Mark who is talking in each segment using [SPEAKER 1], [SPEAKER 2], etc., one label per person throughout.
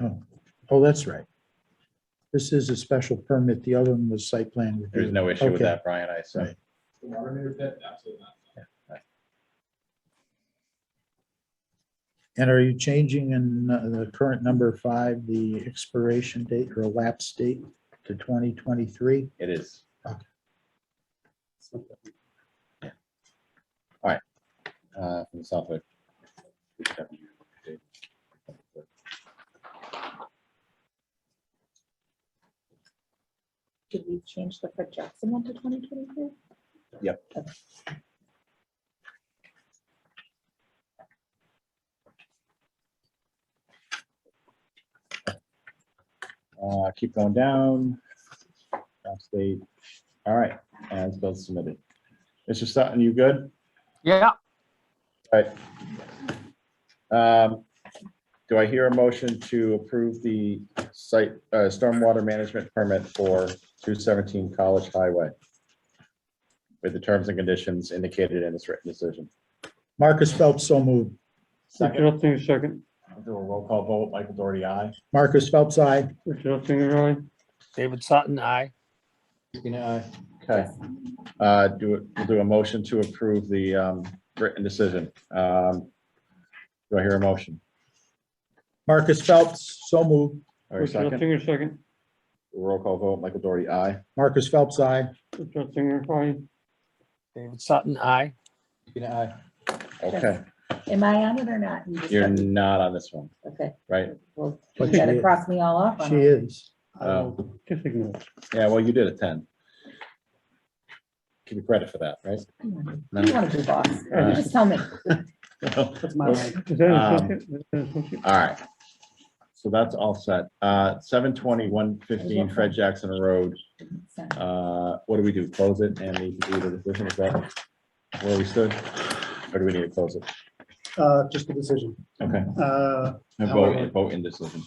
[SPEAKER 1] Oh, oh, that's right. This is a special permit. The other one was site plan review.
[SPEAKER 2] There's no issue with
[SPEAKER 1] Okay.
[SPEAKER 2] that, Brian, I assume.
[SPEAKER 1] Right.
[SPEAKER 3] The water main pit, absolutely not.
[SPEAKER 1] And are you changing in uh, the current number five, the expiration date or lapse date to 2023?
[SPEAKER 2] It is.
[SPEAKER 3] So,
[SPEAKER 2] uh, from Suffolk.
[SPEAKER 4] Did we change the Fred Jackson one to twenty twenty-three?
[SPEAKER 2] Uh, Keep going down. Last date. All right, as both submitted. Mr. Sutton, you good?
[SPEAKER 5] Yeah,
[SPEAKER 2] Um, Do I hear a motion to approve the site, uh, stormwater management permit for 217 College Highway? With the terms and conditions indicated in this written decision.
[SPEAKER 1] Marcus Phelps, so moved.
[SPEAKER 5] Richard Hutzinger, second.
[SPEAKER 2] I'll Do a roll call vote. Michael Doherty, aye.
[SPEAKER 1] Marcus Phelps, aye.
[SPEAKER 5] Richard Hutzinger, aye.
[SPEAKER 6] David Sutton, aye.
[SPEAKER 2] Okay. Uh, Do, it- we'll do a motion to approve the um, written decision. Um, Do I hear a motion?
[SPEAKER 1] Marcus Phelps, so moved.
[SPEAKER 2] Or a
[SPEAKER 5] Richard
[SPEAKER 2] second?
[SPEAKER 5] Hutzinger, second.
[SPEAKER 2] Roll call vote. Michael Doherty, aye.
[SPEAKER 1] Marcus Phelps, aye.
[SPEAKER 5] Richard Hutzinger, aye.
[SPEAKER 6] David Sutton, aye.
[SPEAKER 2] Okay,
[SPEAKER 4] Am I on it or not? You just
[SPEAKER 2] you're
[SPEAKER 4] said-
[SPEAKER 2] not on this one,
[SPEAKER 4] Okay,
[SPEAKER 2] right?
[SPEAKER 4] well,
[SPEAKER 1] But
[SPEAKER 4] you
[SPEAKER 1] she
[SPEAKER 4] gotta
[SPEAKER 1] is.
[SPEAKER 4] cross me all off on
[SPEAKER 1] She
[SPEAKER 4] it.
[SPEAKER 1] is.
[SPEAKER 2] Oh.
[SPEAKER 5] Just ignore it.
[SPEAKER 2] Yeah, well, you did attend. Give you credit for that, right?
[SPEAKER 4] Come on,
[SPEAKER 2] No.
[SPEAKER 4] You wanna be boss,
[SPEAKER 2] Uh,
[SPEAKER 4] You just tell me.
[SPEAKER 5] Is that an
[SPEAKER 2] Um,
[SPEAKER 5] associate? Is that an associate?
[SPEAKER 2] Uh, All right. So that's all set. Uh, 720, 115 Fred Jackson Road. Uh, What do we do? Close it and need to do the decision? Is that where we stood? Or do we need to close it?
[SPEAKER 7] Uh, just the decision.
[SPEAKER 2] Okay.
[SPEAKER 7] Uh,
[SPEAKER 2] A
[SPEAKER 7] How
[SPEAKER 2] Vote,
[SPEAKER 7] we-
[SPEAKER 2] a vote in decision.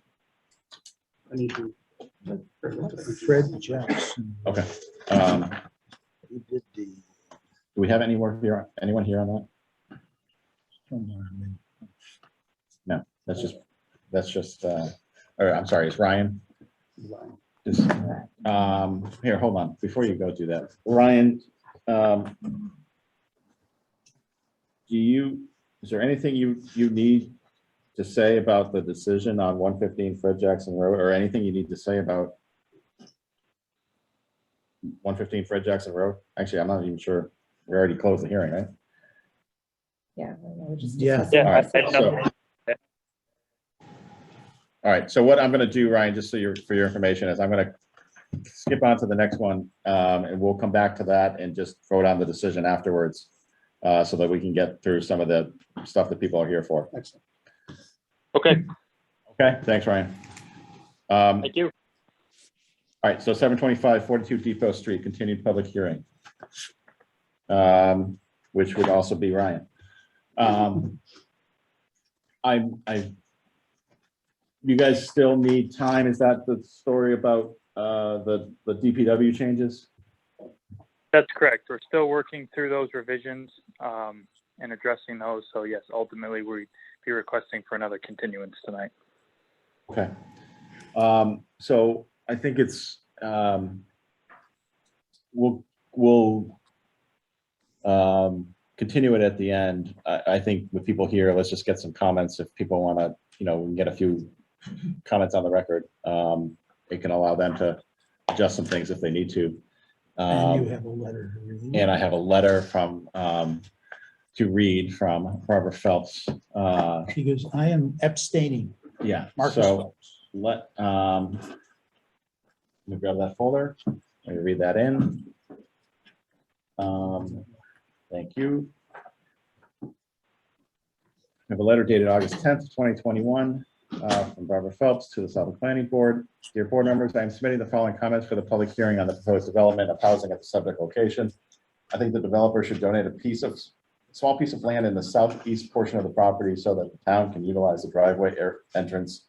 [SPEAKER 7] I need to.
[SPEAKER 1] Fred Jackson.
[SPEAKER 2] Okay. Um,
[SPEAKER 1] He did the.
[SPEAKER 2] Do we have any more here, anyone here on that? That's just, that's just, uh, or I'm sorry, it's Ryan. Just, um, here, hold on, before you go do that, Ryan, um, do you, is there anything you, you need to say about the decision on one fifteen Fred Jackson Road, or anything you need to say about one fifteen Fred Jackson Road? Actually, I'm not even sure, we already closed the hearing, right?
[SPEAKER 4] Yeah. we're just
[SPEAKER 1] Yeah.
[SPEAKER 4] discussing.
[SPEAKER 2] All right, so- All right, so what I'm gonna do, Ryan, just so you're, for your information, is I'm gonna skip on to the next one, um, and we'll come back to that and just vote on the decision afterwards. Uh, so that we can get through some of the stuff that people are here for.
[SPEAKER 7] Excellent.
[SPEAKER 6] Okay,
[SPEAKER 2] Okay, thanks, Ryan. Um,
[SPEAKER 6] you.
[SPEAKER 2] all right, so 725 42 Depot Street, continued public hearing. Um, which would also be Ryan. Um, I, I, you guys still need time? Is that the story about, uh, the, the DPW changes?
[SPEAKER 8] That's correct. We're still working through those revisions um, and addressing those. So yes, ultimately, we'd be requesting for another continuance tonight.
[SPEAKER 2] Okay. Um, so I think it's, um, we'll, we'll, um, continue it at the end. I, I think with people here, let's just get some comments. If people want to, you know, we can get a few comments on the record. Um, it can allow them to adjust some things if they need to.
[SPEAKER 1] And you
[SPEAKER 2] Um,
[SPEAKER 1] have a letter to read.
[SPEAKER 2] and I have a letter from, um, to read from Robert Phelps. Uh,
[SPEAKER 1] He goes, I am abstaining.
[SPEAKER 2] yeah,
[SPEAKER 1] Marcus
[SPEAKER 2] so
[SPEAKER 1] Phelps.
[SPEAKER 2] let, um, let me grab that folder, let me read that in. Um, thank you. I have a letter dated August tenth, twenty twenty-one, uh, from Barbara Phelps to the Suffolk Planning Board. Dear board members, I am submitting the following comments for the public hearing on the proposed development of housing at the subject location. I think the developer should donate a piece of, small piece of land in the southeast portion of the property so that the town can utilize the driveway air entrance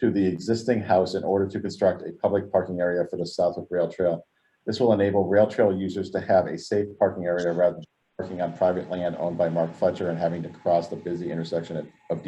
[SPEAKER 2] to the existing house in order to construct a public parking area for the Southwick Rail Trail. This will enable rail trail users to have a safe parking area rather than parking on private land owned by Mark Fletcher and having to cross the busy intersection of- of